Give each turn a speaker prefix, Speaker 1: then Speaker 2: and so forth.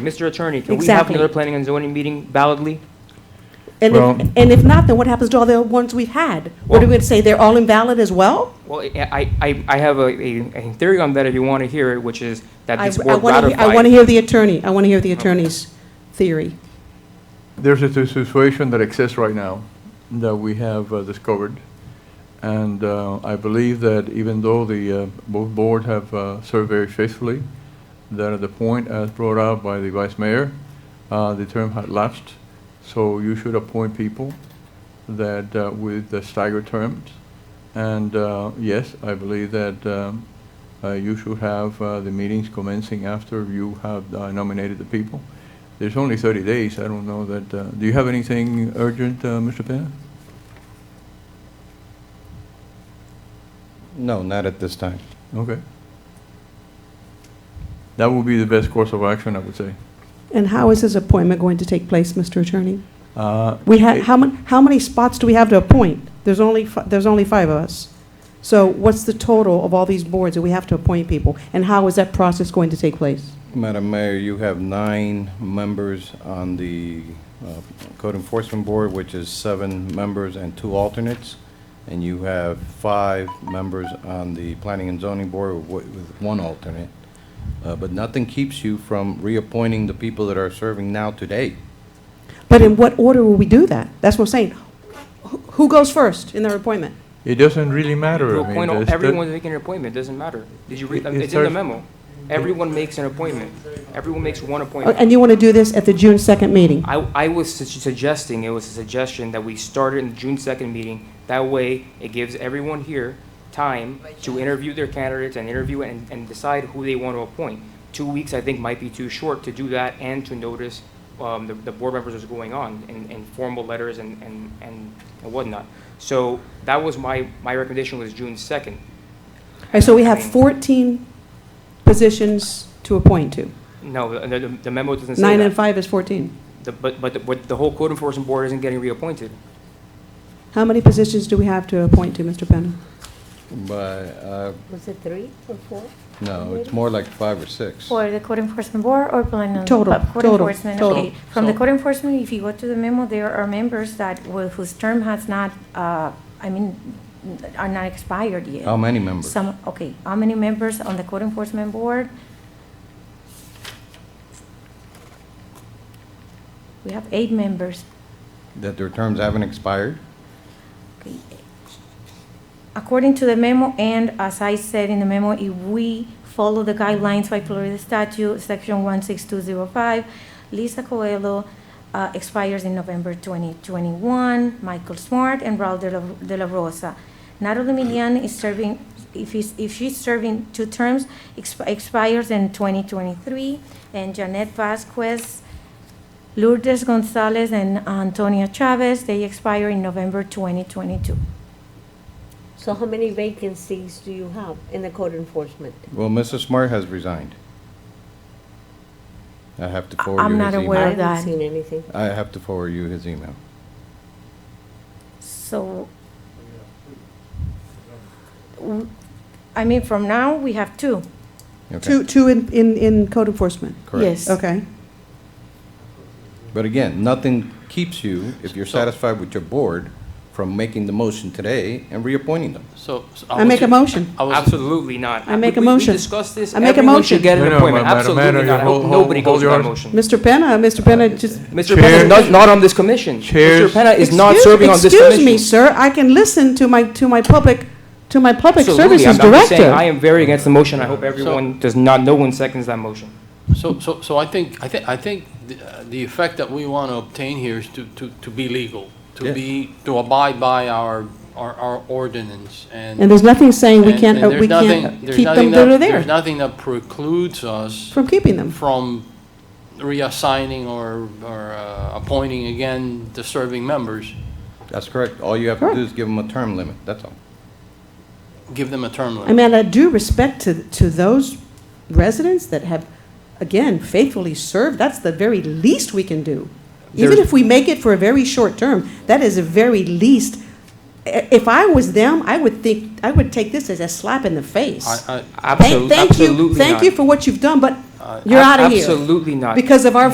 Speaker 1: Mr. Attorney, can we have
Speaker 2: Exactly.
Speaker 1: another planning and zoning meeting validly?
Speaker 2: And
Speaker 3: Well-
Speaker 2: if, and if not, then what happens to all the ones we've had? What are we
Speaker 1: Well-
Speaker 2: gonna say, they're all invalid as well?
Speaker 1: Well, I, I, I have a, a a theory on that if you want to hear it, which is that
Speaker 2: I
Speaker 1: this board
Speaker 2: want to,
Speaker 1: ratified.
Speaker 2: I want to hear the attorney, I want to hear the attorney's theory.
Speaker 3: There's a situation that exists right now that we have uh, discovered. And uh, I believe that even though the, uh, both boards have uh, served very faithfully, that at the point as brought out by the vice mayor, uh, the term had lapsed. So you should appoint people that, uh, with the staggered terms. And uh, yes, I believe that um, uh, you should have uh, the meetings commencing after you have uh, nominated the people. There's only 30 days, I don't know that, uh, do you have anything urgent, uh, Mr. Penna?
Speaker 4: No, not at this time.
Speaker 3: Okay. That would be the best course of action, I would say.
Speaker 2: And how is this appointment going to take place, Mr. Attorney?
Speaker 3: Uh,
Speaker 2: We had,
Speaker 3: it-
Speaker 2: how many, how many spots do we have to appoint? There's only, fi- there's only five of us. So what's the total of all these boards that we have to appoint people? And how is that process going to take place?
Speaker 4: Madam Mayor, you have nine members on the uh, Code Enforcement Board, which is seven members and two alternates, and you have five members on the Planning and Zoning Board with one- with one alternate. Uh, But nothing keeps you from reappointing the people that are serving now today.
Speaker 2: But in what order will we do that? That's what I'm saying. Who- Who goes first in their appointment?
Speaker 3: It doesn't really matter.
Speaker 1: You
Speaker 3: I mean,
Speaker 1: appoint, all-
Speaker 3: there's the-
Speaker 1: everyone's making an appointment, doesn't matter. Did you read,
Speaker 3: It- it
Speaker 1: it's in the
Speaker 3: starts-
Speaker 1: memo. Everyone makes an appointment. Everyone makes one
Speaker 2: Oh,
Speaker 1: appointment.
Speaker 2: And you want to do this at the June 2nd meeting?
Speaker 1: I, I was su- suggesting, it was a suggestion that we started in the June second meeting. That way, it gives everyone here time to interview their candidates and interview and, and decide who they want to appoint. Two weeks, I think, might be too short to do that and to notice, um, the, the board members is going on in, in formal letters and, and, and and whatnot. So that was my, my recommendation was June second.
Speaker 2: All right, so we have 14 positions to appoint to.
Speaker 1: No, the, the- the memo doesn't say that.
Speaker 2: Nine and five is 14.
Speaker 1: The- But, but, the- but the whole code enforcement board isn't getting reappointed.
Speaker 2: How many positions do we have to appoint to, Mr. Penna?
Speaker 4: But, uh,
Speaker 5: Was it three or four?
Speaker 4: no, it's more like five or six.
Speaker 6: For the code enforcement board or planning? and-
Speaker 2: Total,
Speaker 6: uh, Code
Speaker 2: total,
Speaker 6: enforcement,
Speaker 2: total.
Speaker 6: okay. From the code enforcement, if you go to the memo, there are members that, will- whose term has not, uh, I mean, are not expired yet.
Speaker 2: Um,
Speaker 4: How many members?
Speaker 6: Some, okay, how many members on the code enforcement board? We have eight members.
Speaker 4: That their terms haven't expired?
Speaker 6: Okay. According to the memo, and as I said in the memo, if we follow the guidelines by Florida statute, section 16205, Lisa Coelho uh, expires in November 2021, Michael Smart and Raul de la- de la Rosa. Natalie Milian is serving, if he's, if she's serving two terms, exp- expires in 2023, and Janet Vasquez Lourdes Gonzalez and Antonia Chavez, they expire in November 2022.
Speaker 5: So how many vacancies do you have in the code enforcement?
Speaker 4: Well, Mrs. Smart has resigned. I have to forward you
Speaker 6: I'm
Speaker 4: his
Speaker 6: not
Speaker 4: email.
Speaker 6: aware. Well,
Speaker 5: I haven't
Speaker 6: that-
Speaker 5: seen anything.
Speaker 4: I have to forward you his email.
Speaker 6: So, w- I mean, from now, we have two.
Speaker 4: Okay.
Speaker 2: Two, two in, in, in code enforcement?
Speaker 4: Correct.
Speaker 2: Okay.
Speaker 4: But again, nothing keeps you, if you're satisfied with your board, from making the motion today and reappointing them.
Speaker 1: So.
Speaker 2: I make a motion.
Speaker 1: Absolutely not.
Speaker 2: I make a
Speaker 1: We- we-
Speaker 2: motion.
Speaker 1: We discussed this.
Speaker 2: I make a
Speaker 1: Everyone should
Speaker 2: motion.
Speaker 1: get an
Speaker 3: No, no,
Speaker 1: appointment.
Speaker 3: Madam
Speaker 1: Absolutely
Speaker 3: Madam,
Speaker 1: not. I
Speaker 3: you
Speaker 1: hope
Speaker 3: hold- hold-
Speaker 1: nobody
Speaker 3: hold
Speaker 1: goes by
Speaker 3: yours.
Speaker 1: motion.
Speaker 2: Mr. Penna, Mr. Penna, just.
Speaker 1: Mr. Penna is
Speaker 3: Chair-
Speaker 1: not, not on this commission. Mr.
Speaker 3: Chairs-
Speaker 1: Penna is not
Speaker 2: Excuse-
Speaker 1: serving on this
Speaker 2: Excuse me,
Speaker 1: commission.
Speaker 2: sir, I can listen to my, to my public, to my public
Speaker 1: Absolutely.
Speaker 2: services
Speaker 1: I'm- I'm just saying, I
Speaker 2: director.
Speaker 1: am very against the motion. I hope everyone does not, no one seconds that motion.
Speaker 7: So, so, so I think, I think, I think the, uh, the effect that we want to obtain here is to, to, to be legal, to
Speaker 4: Yeah.
Speaker 7: be, to abide by our, our, our ordinance and.
Speaker 2: And there's nothing saying we
Speaker 7: and-
Speaker 2: can't,
Speaker 7: and
Speaker 2: uh,
Speaker 7: there's
Speaker 2: we
Speaker 7: nothing-
Speaker 2: can't
Speaker 7: there's
Speaker 2: keep them
Speaker 7: nothing
Speaker 2: that are
Speaker 7: that- There's
Speaker 2: there,
Speaker 7: nothing that precludes us
Speaker 2: from keeping them.
Speaker 7: from reassigning or, or uh, appointing again the serving members.
Speaker 4: That's correct. All you have to do is give them a term limit, that's all.
Speaker 7: Give them a term
Speaker 2: I
Speaker 7: limit.
Speaker 2: mean, I do respect to, to those residents that have, again, faithfully served, that's the very least we can do. Even
Speaker 1: There's-
Speaker 2: if we make it for a very short term, that is the very least. I- If I was them, I would think, I would take this as a slap in the face.
Speaker 7: I, I,
Speaker 2: Thank-
Speaker 1: Absolutely,
Speaker 2: Thank you,
Speaker 1: absolutely
Speaker 2: thank
Speaker 1: not.
Speaker 2: you for what you've done, but
Speaker 7: Uh,
Speaker 2: You're out of here.
Speaker 1: Absolutely not.
Speaker 2: Because of our